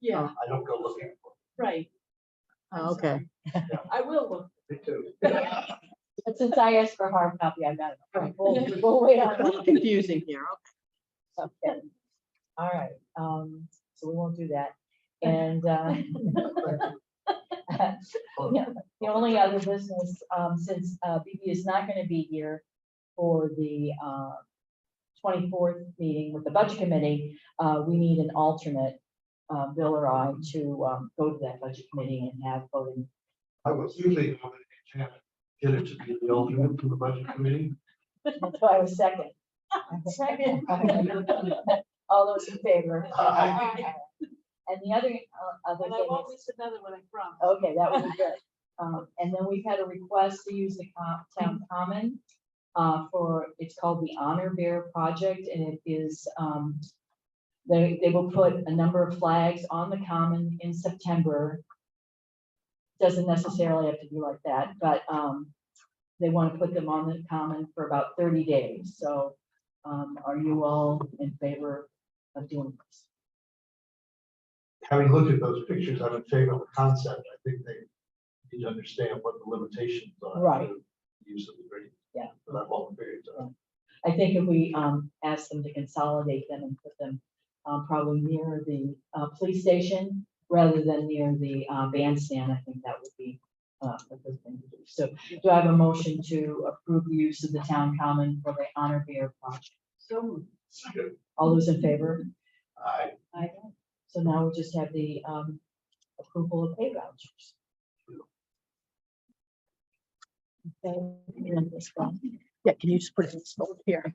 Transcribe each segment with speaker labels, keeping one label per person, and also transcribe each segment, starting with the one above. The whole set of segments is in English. Speaker 1: Yeah,
Speaker 2: Um, I don't go looking for
Speaker 1: right. I'm
Speaker 3: Oh, okay.
Speaker 1: sorry. I will look.
Speaker 2: it. Me too.
Speaker 4: But since I asked for hard copy, I've got it.
Speaker 1: Right.
Speaker 4: We'll, we'll wait on
Speaker 3: A little confusing here.
Speaker 4: that. Okay. All right, um, so we won't do that. And, uh, yeah, the only other business, um, since, uh, BB is not gonna be here for the, uh, twenty-fourth meeting with the budget committee, uh, we need an alternate, uh, Bill or I to, um, go to that budget committee and have voting.
Speaker 2: I was usually going to have it, get it to be the alternate to the budget committee.
Speaker 4: That's why I was second. Second. All those in favor?
Speaker 2: Aye.
Speaker 4: And the other, uh, other
Speaker 1: And I
Speaker 4: thing
Speaker 1: won't
Speaker 4: is,
Speaker 1: miss another one, I promise.
Speaker 4: okay, that would be good. Um, and then we've had a request to use the co- town common, uh, for, it's called the Honor Bear Project, and it is, um, they, they will put a number of flags on the common in September. Doesn't necessarily have to be like that, but, um, they want to put them on the common for about thirty days, so, um, are you all in favor of doing this?
Speaker 2: Having looked at those pictures, I'm in favor of the concept. I think they need to understand what the limitations are.
Speaker 4: Right.
Speaker 2: to Use of the green.
Speaker 4: Yeah.
Speaker 2: For that long period of time.
Speaker 4: I think if we um ask them to consolidate them and put them um probably near the uh police station rather than near the uh bandstand, I think that would be uh a good thing to do. So do I have a motion to approve the use of the town common for the honor beer project?
Speaker 1: So moved.
Speaker 2: Good.
Speaker 4: All those in favor?
Speaker 2: uh, I,
Speaker 4: Aye. So now we just have the um approval of pay vouchers. Okay, and this one.
Speaker 3: Yeah, can you just put it in this folder here?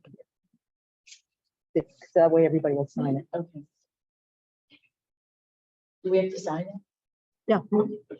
Speaker 3: It's- That way everybody will sign it.
Speaker 4: Okay. Do we have to sign it?
Speaker 3: Yeah.